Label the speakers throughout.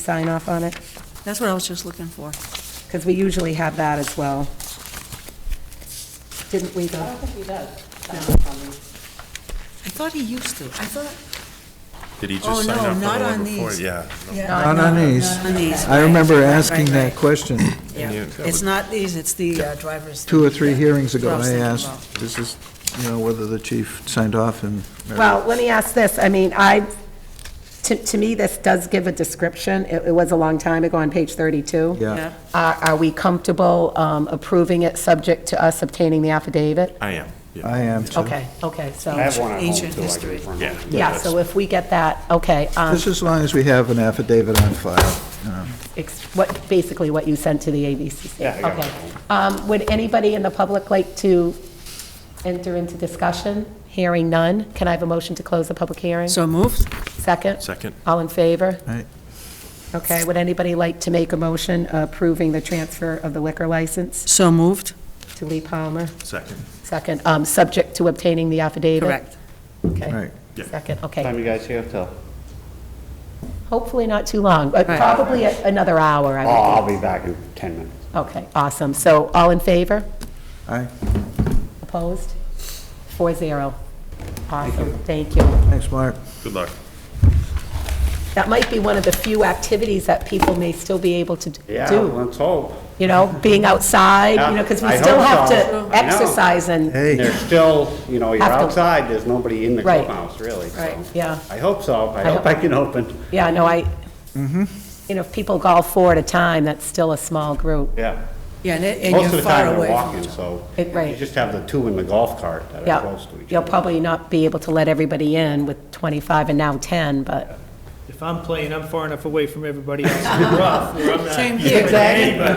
Speaker 1: sign off on it?
Speaker 2: That's what I was just looking for.
Speaker 1: Because we usually have that as well. Didn't we, though?
Speaker 2: I thought he used to. I thought.
Speaker 3: Did he
Speaker 2: Oh,
Speaker 3: just sign
Speaker 2: no,
Speaker 3: up for
Speaker 2: not
Speaker 3: the
Speaker 2: on
Speaker 3: one before?
Speaker 2: these.
Speaker 3: Yeah.
Speaker 4: Not on these.
Speaker 2: On these.
Speaker 4: I remember asking
Speaker 2: right,
Speaker 4: that
Speaker 2: right.
Speaker 4: question
Speaker 2: Yeah.
Speaker 3: you-
Speaker 2: It's not these, it's the uh, driver's.
Speaker 4: two or three hearings ago.
Speaker 2: That's what
Speaker 4: I
Speaker 2: I was thinking
Speaker 4: asked, this is, you know, whether the chief signed off and.
Speaker 1: Well, let me ask this, I mean, I, to, to me, this does give a description, it, it was a long time ago on page 32.
Speaker 4: Yeah,
Speaker 1: Are, are we comfortable um, approving it, subject to us obtaining the affidavit?
Speaker 3: I am, yeah.
Speaker 4: I am too.
Speaker 1: Okay, okay,
Speaker 5: I
Speaker 1: so,
Speaker 5: have one at home,
Speaker 2: Ancient
Speaker 5: too, I
Speaker 2: history.
Speaker 5: can print
Speaker 3: Yeah.
Speaker 5: it.
Speaker 1: yeah, so if we get that, okay, um,
Speaker 4: Just as long as we have an affidavit on file. you know.
Speaker 1: ex- what, basically what you sent to the ABCC.
Speaker 5: Yeah, I got
Speaker 1: Okay.
Speaker 5: it.
Speaker 1: Um, Would anybody in the public like to enter into discussion? Hearing none, can I have a motion to close the public hearing?
Speaker 2: So moved?
Speaker 1: Second?
Speaker 3: Second,
Speaker 1: All in favor?
Speaker 4: Aye.
Speaker 1: Okay, would anybody like to make a motion approving the transfer of the liquor license
Speaker 2: So moved?
Speaker 1: to Lee Palmer?
Speaker 3: second.
Speaker 1: Second, um, subject to obtaining the affidavit?
Speaker 2: Correct.
Speaker 4: Right.
Speaker 1: Okay.
Speaker 3: Yeah.
Speaker 1: Second,
Speaker 5: Time
Speaker 1: okay.
Speaker 5: you guys here till?
Speaker 1: Hopefully not too long, but
Speaker 2: Right.
Speaker 1: probably a- another hour, I
Speaker 5: Oh,
Speaker 1: would
Speaker 5: I'll be back in 10 minutes.
Speaker 1: think. Okay, awesome. So all in favor?
Speaker 4: Aye,
Speaker 1: Opposed? Four zero. Awesome, thank you.
Speaker 4: thanks, Mark.
Speaker 3: Good luck.
Speaker 1: That might be one of the few activities that people may still be able to d-
Speaker 5: Yeah,
Speaker 1: do,
Speaker 5: let's hope.
Speaker 1: you know, being outside, you know, because we
Speaker 5: Yeah, I
Speaker 1: still
Speaker 5: hope
Speaker 1: have
Speaker 5: so.
Speaker 1: to
Speaker 5: I know.
Speaker 1: exercise and
Speaker 4: Hey,
Speaker 5: There's still, you know, you're
Speaker 1: Have to-
Speaker 5: outside, there's nobody in the
Speaker 1: Right.
Speaker 5: clubhouse, really, so.
Speaker 1: Right, yeah.
Speaker 5: I hope so. I
Speaker 1: I
Speaker 5: hope I can open.
Speaker 1: Yeah, no, I,
Speaker 5: Mm-hmm.
Speaker 1: you know, if people golf four at a time, that's still a small group.
Speaker 5: Yeah.
Speaker 2: Yeah, and it- and
Speaker 5: Most of
Speaker 2: you're
Speaker 5: the
Speaker 2: far
Speaker 5: time they're
Speaker 2: away. from-
Speaker 5: walking, so.
Speaker 1: It- right.
Speaker 5: You just have the two in the golf cart that are
Speaker 1: Yeah,
Speaker 5: close to each
Speaker 1: you'll
Speaker 5: other.
Speaker 1: probably not be able to let everybody in with 25 and now 10, but,
Speaker 6: If I'm playing, I'm far enough away from everybody else in the rough, where I'm not.
Speaker 2: Same here.
Speaker 4: Zig,
Speaker 2: We're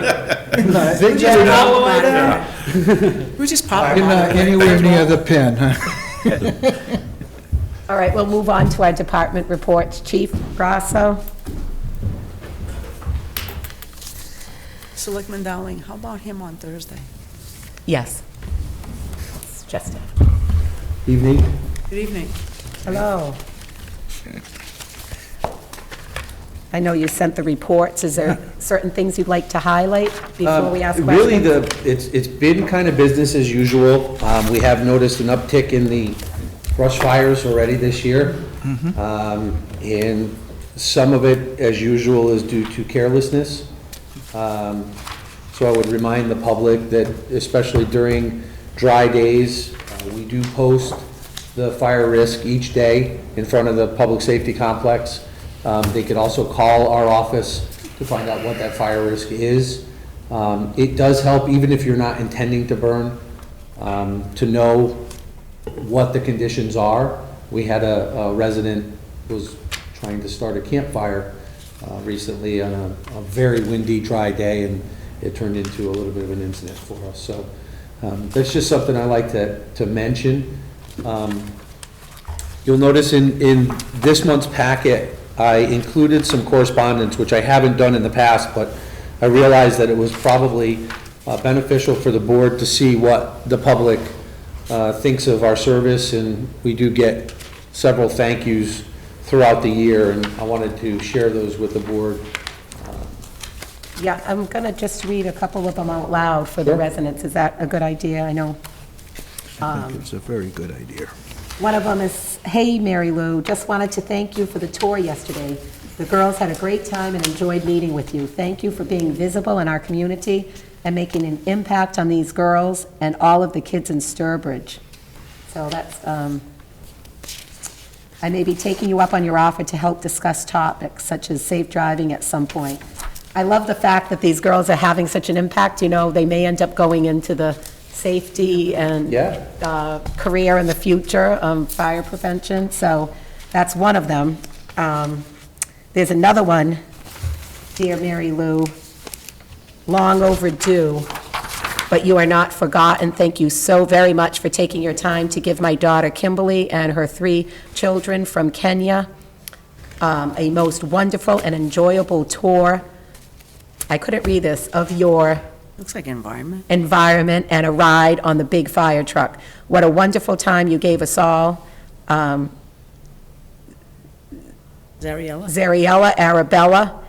Speaker 4: you're
Speaker 2: just
Speaker 4: not-
Speaker 2: pop them on. We're just pop
Speaker 4: you're
Speaker 2: them
Speaker 4: not
Speaker 2: on.
Speaker 4: anywhere near the pin, huh?
Speaker 1: all right, we'll move on to our department reports. Chief Grasso?
Speaker 2: Selectman Dowling, how about him on Thursday?
Speaker 1: Yes. It's Justin.
Speaker 4: Evening.
Speaker 2: Good evening.
Speaker 1: Hello. I know you sent the reports. Is there certain things you'd like to highlight before
Speaker 7: Um,
Speaker 1: we ask questions?
Speaker 7: Really, the, it's, it's been kind of business as usual. Um, We have noticed an uptick in the brush fires already this year. Um, And some of it, as usual, is due to carelessness. Um, So I would remind the public that especially during dry days, uh, we do post the fire risk each day in front of the public safety complex. Um, They could also call our office to find out what that fire risk is. Um, It does help, even if you're not intending to burn, um, to know what the conditions are. We had a a resident was trying to start a campfire uh, recently on a a very windy, dry day, and it turned into a little bit of an incident for us. So um, that's just something I like to to mention. Um, You'll notice in, in this month's packet, I included some correspondence, which I haven't done in the past, but I realized that it was probably uh, beneficial for the board to see what the public uh, thinks of our service, and we do get several thank yous throughout the year, and I wanted to share those with the board.
Speaker 1: Yeah, I'm going to just read a couple of them out loud for the
Speaker 7: Sure.
Speaker 1: residents. Is that a good idea? I know
Speaker 4: I think it's a very good idea.
Speaker 1: One of them is, "Hey, Mary Lou, just wanted to thank you for the tour yesterday. The girls had a great time and enjoyed meeting with you. Thank you for being visible in our community and making an impact on these girls and all of the kids in Sturbridge." So that's, um, I may be taking you up on your offer to help discuss topics such as safe driving at some point. I love the fact that these girls are having such an impact, you know, they may end up going into the safety and
Speaker 7: Yeah.
Speaker 1: uh, career in the future, um, fire prevention, so that's one of them. Um, There's another one, Dear Mary Lou, long overdue, but you are not forgotten. Thank you so very much for taking your time to give my daughter Kimberly and her three children from Kenya um, a most wonderful and enjoyable tour, I couldn't read this, of your
Speaker 2: Looks like environment.
Speaker 1: environment and a ride on the big fire truck. What a wonderful time you gave us all. Um,
Speaker 2: Zariella?
Speaker 1: Zariella, Arabella,